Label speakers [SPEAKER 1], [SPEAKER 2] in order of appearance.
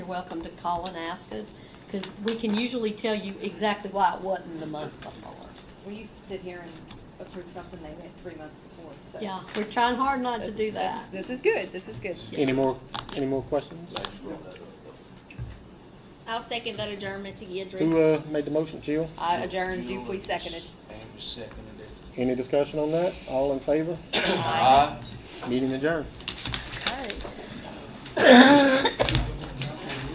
[SPEAKER 1] welcome to call and ask us, because we can usually tell you exactly why it wasn't the month before.
[SPEAKER 2] We used to sit here and approve something they went three months before, so.
[SPEAKER 1] Yeah, we're trying hard not to do that.
[SPEAKER 2] That's- This is good, this is good.
[SPEAKER 3] Any more, any more questions?
[SPEAKER 4] I'll second that adjournment to Gidry.
[SPEAKER 3] Who, uh, made the motion? Jill?
[SPEAKER 2] I adjourned, Dupuy seconded.
[SPEAKER 5] Andrew seconded it.
[SPEAKER 3] Any discussion on that? All in favor? Meeting adjourned.
[SPEAKER 2] Okay.